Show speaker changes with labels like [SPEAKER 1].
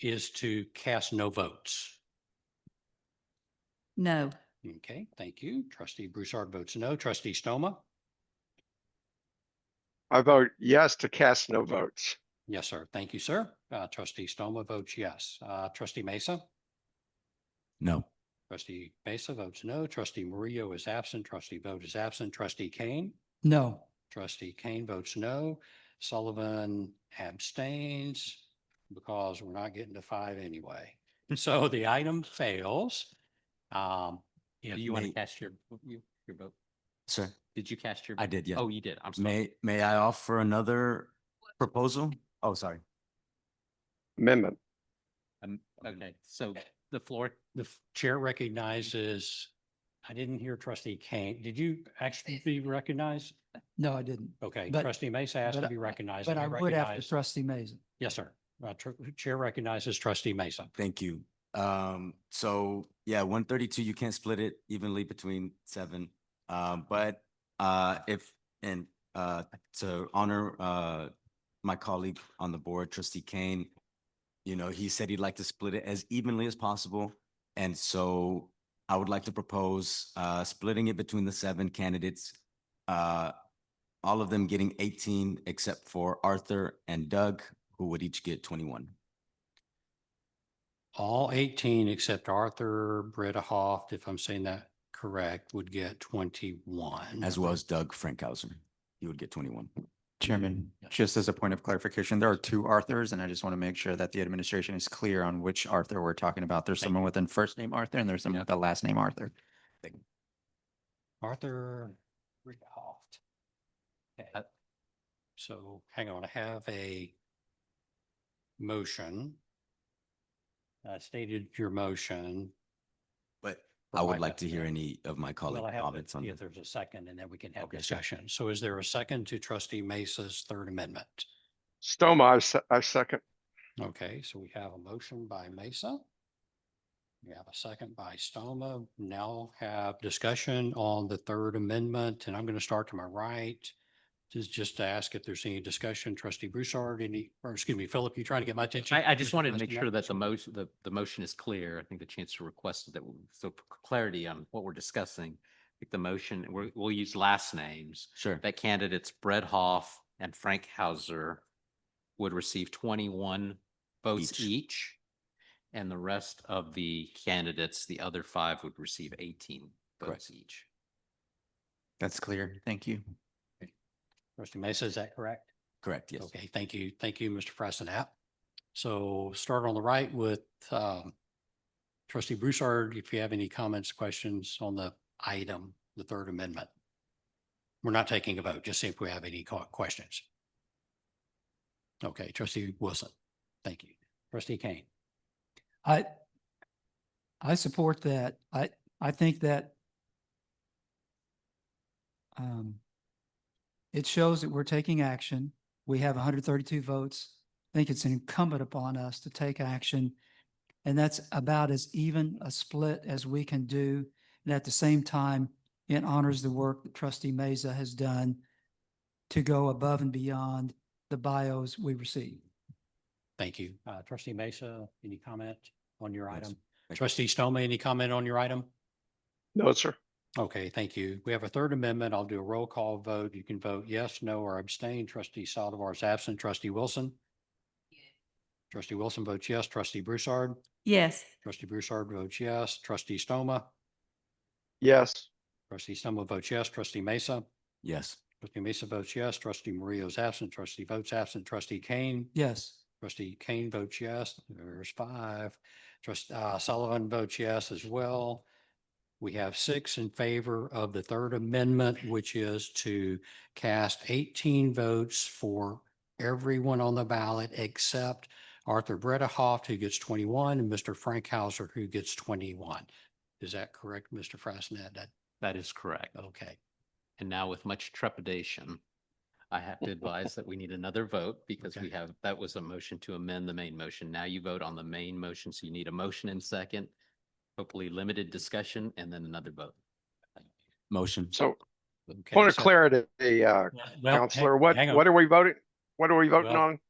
[SPEAKER 1] is to cast no votes.
[SPEAKER 2] No.
[SPEAKER 1] Okay, thank you. Trustee Broussard votes no. Trustee Stoma?
[SPEAKER 3] I vote yes to cast no votes.
[SPEAKER 1] Yes, sir. Thank you, sir. Uh, trustee Stoma votes yes. Uh, trustee Mesa?
[SPEAKER 4] No.
[SPEAKER 1] Trustee Mesa votes no. Trustee Murillo is absent. Trustee vote is absent. Trustee Kane?
[SPEAKER 4] No.
[SPEAKER 1] Trustee Kane votes no. Sullivan abstains because we're not getting to five anyway. So the item fails. Um,
[SPEAKER 5] Do
[SPEAKER 1] if
[SPEAKER 5] you want to
[SPEAKER 4] may-
[SPEAKER 5] cast your, you- your vote?
[SPEAKER 4] Sir,
[SPEAKER 5] Did you cast your?
[SPEAKER 4] I did, yeah.
[SPEAKER 5] Oh, you did. I'm sorry.
[SPEAKER 4] May, may I offer another proposal? Oh, sorry.
[SPEAKER 3] Amendment.
[SPEAKER 5] Um, Okay, so the floor,
[SPEAKER 1] the f- chair recognizes, I didn't hear trustee Kane. Did you actually be recognized?
[SPEAKER 6] No, I didn't.
[SPEAKER 1] Okay,
[SPEAKER 6] But-
[SPEAKER 1] trustee Mesa asked
[SPEAKER 6] but
[SPEAKER 1] to
[SPEAKER 6] I-
[SPEAKER 1] be recognized.
[SPEAKER 6] But
[SPEAKER 1] and
[SPEAKER 6] I would after
[SPEAKER 1] recognize-
[SPEAKER 6] trustee Mason.
[SPEAKER 1] Yes, sir. Uh, tr- Chair recognizes trustee Mesa.
[SPEAKER 4] Thank you. Um, so yeah, one thirty-two, you can't split it evenly between seven. Um, but, uh, if, and, uh, to honor, uh, my colleague on the board, trustee Kane, you know, he said he'd like to split it as evenly as possible. And so I would like to propose, uh, splitting it between the seven candidates. Uh, all of them getting eighteen except for Arthur and Doug, who would each get twenty-one.
[SPEAKER 1] All eighteen except Arthur Britta Hoff, if I'm saying that correct, would get twenty-one.
[SPEAKER 4] as well as Doug Frankhauser. He would get 21.
[SPEAKER 7] Chairman, just as a point of clarification, there are two Arthurs, and I just want to make sure that the administration is clear on which Arthur we're talking about. There's
[SPEAKER 1] Thank
[SPEAKER 7] someone with a first name Arthur and there's someone with a last name Arthur.
[SPEAKER 1] Arthur Britta Hoff. Okay.
[SPEAKER 5] Uh,
[SPEAKER 1] So hang on, I have a motion. I stated your motion.
[SPEAKER 4] But
[SPEAKER 1] for
[SPEAKER 4] I
[SPEAKER 1] my
[SPEAKER 4] would like to hear
[SPEAKER 1] benefit.
[SPEAKER 4] any of
[SPEAKER 1] Well,
[SPEAKER 4] my
[SPEAKER 1] I
[SPEAKER 4] colleague
[SPEAKER 1] have to
[SPEAKER 4] comments on
[SPEAKER 1] see If
[SPEAKER 4] that.
[SPEAKER 1] there's a second and then we can have
[SPEAKER 4] Okay.
[SPEAKER 1] discussion. So is there a second to trustee Mesa's third amendment?
[SPEAKER 3] Stoma, I se- I second.
[SPEAKER 1] Okay, so we have a motion by Mesa. We have a second by Stoma. Now have discussion on the third amendment, and I'm going to start to my right. Just, just to ask if there's any discussion, trustee Broussard, any, or excuse me, Philip, you trying to get my attention?
[SPEAKER 5] I, I just wanted to make
[SPEAKER 1] Trustee-
[SPEAKER 5] sure that the motion, the, the motion is clear. I think the chancellor requested that, we- so for clarity on what we're discussing. I think the motion, we're, we'll use last names.
[SPEAKER 4] Sure.
[SPEAKER 5] That candidates Brett Hoff and Frank Hauser would receive twenty-one votes
[SPEAKER 4] Each.
[SPEAKER 5] each. And the rest of the candidates, the other five would receive eighteen
[SPEAKER 4] Correct.
[SPEAKER 5] votes each.
[SPEAKER 7] That's clear. Thank you.
[SPEAKER 1] Trustee Mesa, is that correct?
[SPEAKER 4] Correct, yes.
[SPEAKER 1] Okay, thank you. Thank you, Mr. Freistinat. So start on the right with um, trustee Broussard, if you have any comments, questions on the item, the third amendment. We're not taking a vote, just see if we have any co- questions. Okay, trustee Wilson, thank you. Trustee Kane,
[SPEAKER 6] I, I support that. I, I think that um, it shows that we're taking action. We have hundred thirty-two votes. I think it's incumbent upon us to take action. And that's about as even a split as we can do. And at the same time, it honors the work that trustee Mesa has done to go above and beyond the bios we receive.
[SPEAKER 1] thank you. Uh, Trustee Mesa, any comment on your
[SPEAKER 4] Yes,
[SPEAKER 1] item?
[SPEAKER 4] you.
[SPEAKER 1] Trustee Stoma, any comment on your item?
[SPEAKER 3] No, sir.
[SPEAKER 1] Okay, thank you. We have a third amendment. I'll do a roll call vote. You can vote yes, no, or abstain. Trustee Saldivar is absent. Trustee Wilson? Trustee Wilson votes yes. Trustee Broussard?
[SPEAKER 2] Yes.
[SPEAKER 1] Trustee Broussard votes yes. Trustee Stoma?
[SPEAKER 3] Yes.
[SPEAKER 1] Trustee Stoma votes yes. Trustee Mesa?
[SPEAKER 4] Yes.
[SPEAKER 1] Trustee Mesa votes yes. Trustee Murillo is absent. Trustee votes absent. Trustee Kane?
[SPEAKER 6] Yes.
[SPEAKER 1] Trustee Kane votes yes. There's five. Trust, uh, Sullivan votes yes as well. We have six in favor of the third amendment, which is to cast eighteen votes for everyone on the ballot except Arthur Brettahoff, who gets twenty-one, and Mr. Frank Hauser, who gets twenty-one. Is that correct, Mr. Frasnett? That,
[SPEAKER 5] That is correct.
[SPEAKER 1] okay.
[SPEAKER 5] And now with much trepidation, I have to advise that we need another vote because we
[SPEAKER 1] Okay.
[SPEAKER 5] have, that was a motion to amend the main motion. Now you vote on the main motion, so you need a motion and second, hopefully limited discussion and then another vote.
[SPEAKER 4] Motion.
[SPEAKER 3] So
[SPEAKER 1] Okay,
[SPEAKER 3] point of
[SPEAKER 1] so-
[SPEAKER 3] clarity, uh,
[SPEAKER 1] Well, hang-
[SPEAKER 3] counselor, what,
[SPEAKER 1] hang on.
[SPEAKER 3] what are we voting? What are we voting
[SPEAKER 1] Well-
[SPEAKER 3] on?